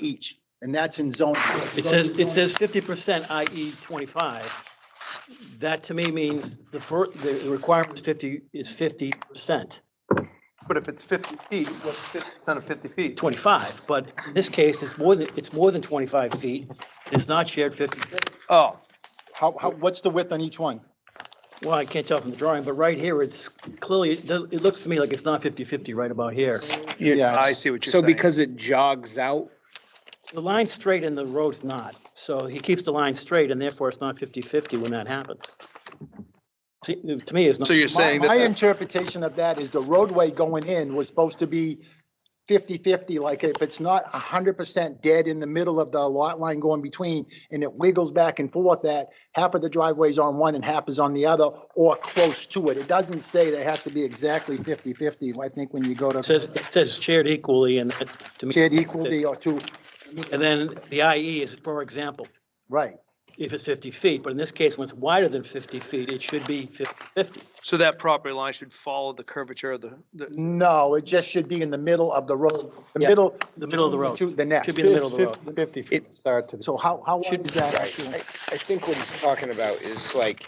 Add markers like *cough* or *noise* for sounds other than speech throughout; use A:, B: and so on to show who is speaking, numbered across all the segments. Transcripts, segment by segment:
A: each, and that's in zoning.
B: It says, it says fifty percent, i.e. twenty-five. That to me means the fir, the the requirement is fifty, is fifty percent,
C: But if it's fifty feet, what's fifty percent of fifty feet?
B: twenty-five, but in this case, it's more than, it's more than twenty-five feet. It's not shared fifty,
C: Oh,
A: How, how, what's the width on each one?
B: well, I can't tell from the drawing, but right here, it's clearly, it does- it looks to me like it's not 50-50 right about here.
A: Yeah.
C: I see what you're
D: So
C: saying.
D: because it jogs out,
B: The line's straight and the road's not, so he keeps the line straight and therefore it's not 50-50 when that happens. See, to me, it's not.
C: So you're
A: My
C: saying
A: my
C: that,
A: interpretation of that is the roadway going in was supposed to be 50-50, like if it's not hundred percent dead in the middle of the lot line going between, and it wiggles back and forth, that half of the driveway's on one and half is on the other, or close to it. It doesn't say that it has to be exactly 50-50, I think when you go
B: It says,
A: to
B: it says shared equally and it- to me,
A: shared equally or two,
B: and then the IE is, for example,
A: right.
B: if it's 50 feet, but in this case, when it's wider than 50 feet, it should be 50-50.
C: so that property line should follow the curvature of the, the,
A: No, it just should be in the middle of the road, the
B: Yeah,
A: middle.
B: the middle of the road.
A: To the next.
B: Should be in the middle of the road.
E: Fifty feet from start to the.
A: So how, how wide
B: Should-
A: is that?
D: right,
A: actual-
D: I, I think what he's talking about is like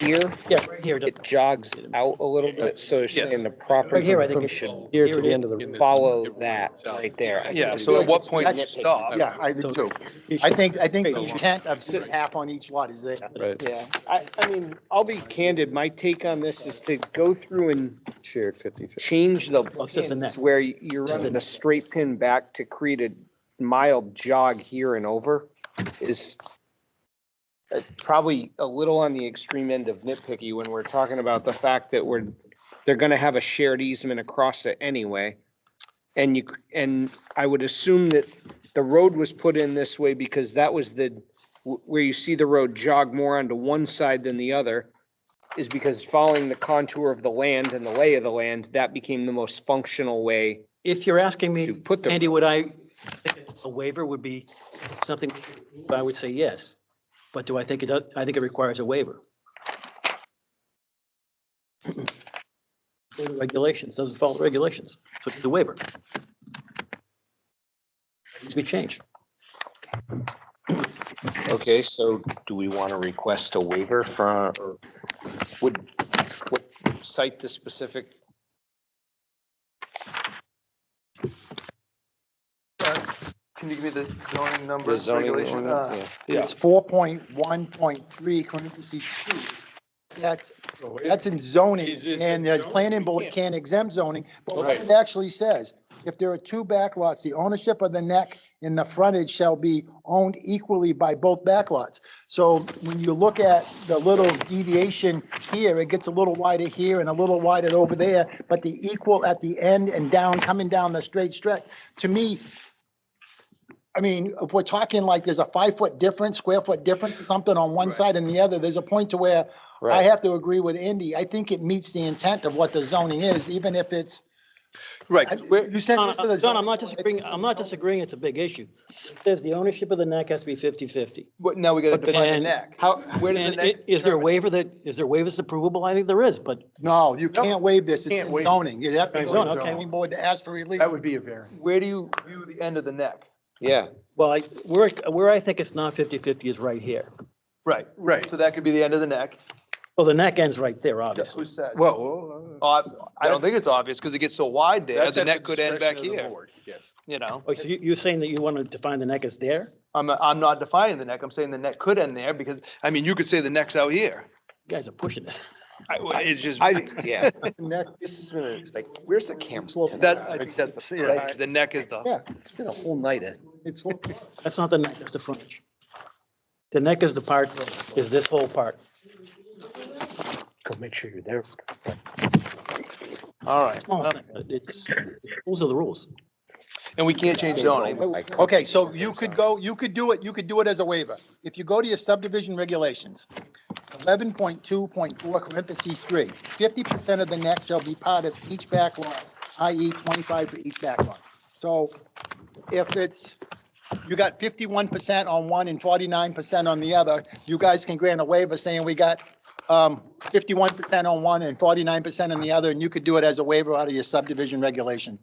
D: here,
B: Yeah, right here.
D: it jogs out a little bit, so it's
C: Yes.
D: in the
B: Right
D: property
B: here, I think it
D: should
E: Here to
B: Here it
E: the end of the.
D: follow that right there. I
C: yeah,
D: think
C: so at
D: it's-
C: what point you
A: That's-
C: stop?
A: Yeah, I
B: So-
A: do. too. I think, I think the intent of
D: Sit-
A: half on each lot is there.
E: Right,
D: Yeah, I, I mean, I'll be candid, my take on this is to go through and
E: shared fifty.
D: change the
B: it's just a net.
D: pins where you're
B: Just a
D: running a
B: net.
D: straight pin back to create a mild jog here and over is uh, probably a little on the extreme end of nitpicky when we're talking about the fact that we're, they're gonna have a shared easement across it anyway. And you, c- and I would assume that the road was put in this way because that was the, wh- where you see the road jog more onto one side than the other is because following the contour of the land and the lay of the land, that became the most functional way
B: If you're asking me,
D: to put the,
B: Andy, would I, think a waiver would be something, I would say yes. But do I think it, does? I think it requires a waiver. Regulations, doesn't follow the regulations, so it's a waiver. Needs to be changed.
D: okay, so do we want to request a waiver from, or would, would cite the specific?
C: Can you give me the zoning number,
D: the zoning
C: regulation?
D: ordinance?
C: Uh,
D: Yeah.
A: It's four point one point three, C two. That's, that's in zoning, and the planning board can't exempt zoning, but what it actually says, if there are two backlots, the ownership of the neck and the frontage shall be owned equally by both backlots. So when you look at the little deviation here, it gets a little wider here and a little wider over there, but the equal at the end and down, coming down the straight stretch, to me, I mean, if we're talking like there's a five foot difference, square foot difference, or something on one side and the other, there's a point to where I
D: Right.
A: have to agree with Indy. I think it meets the intent of what the zoning is, even if it's. I-
C: Right, where,
A: You sent
B: John,
A: this to the.
B: John, I'm not
A: zoning board.
B: disagreeing, I'm not disagreeing, it's a big issue. It Says the ownership of the neck has to be 50/50.
C: what, now we gotta
B: But the-
C: define the
B: and-
C: neck. How, where did the
B: And
C: neck?
B: i- is there a waiver that, is there waivers that's approvable? I think there is, but
A: No, you
C: Nope.
A: can't waive this. It's
C: Can't
A: in
C: waive it.
A: zoning. You have to
B: Right,
A: go
B: zoning,
A: to the
B: okay.
A: zoning board to ask for relief.
E: would be a variance.
C: Where do you view the end of the neck?
D: Yeah,
B: Well, I, where, where I think it's not 50/50 is right here.
C: Right, right. So that could be the end of the neck.
B: Well, the neck ends right there,
C: Just
B: obviously.
C: who said?
E: Well.
C: Uh, I don't think it's obvious because it gets so wide there,
E: that's
C: the
E: at the
C: neck could end back
E: discretion of the
C: here,
E: board, Yes.
C: you know?
B: Oh, so you, you're saying that you want to define the neck as there?
C: I'm, I'm not defining the neck, I'm saying the neck could end there because, I mean, you could say the neck's out here.
B: You guys are pushing it. *laughs*
C: I- It's just,
D: I, yeah,
A: Neck-
D: *laughs* this is, gonna- it's like, where's the camera?
A: Well,
D: tonight?
C: *laughs* that, I think that's the,
E: Yeah.
C: the neck is the,
A: Yeah,
D: It's been a whole night of
A: it's,
B: That's not the neck, that's the frontage. The neck is the part, is this whole part.
D: Go make sure you're there.
C: all right.
B: Small thing, but It's, rules are the rules.
C: And we can't change zoning.
A: okay, so you could go, you could do it, you could do it as a waiver. If you go to your subdivision regulations, eleven point two point four parentheses three, fifty percent of the neck shall be part of each back lot, i.e. twenty-five for each back lot. So if it's, you got fifty-one percent on one and forty-nine percent on the other, you guys can grant a waiver saying we got um, fifty-one percent on one and forty-nine percent on the other, and you could do it as a waiver out of your subdivision regulation.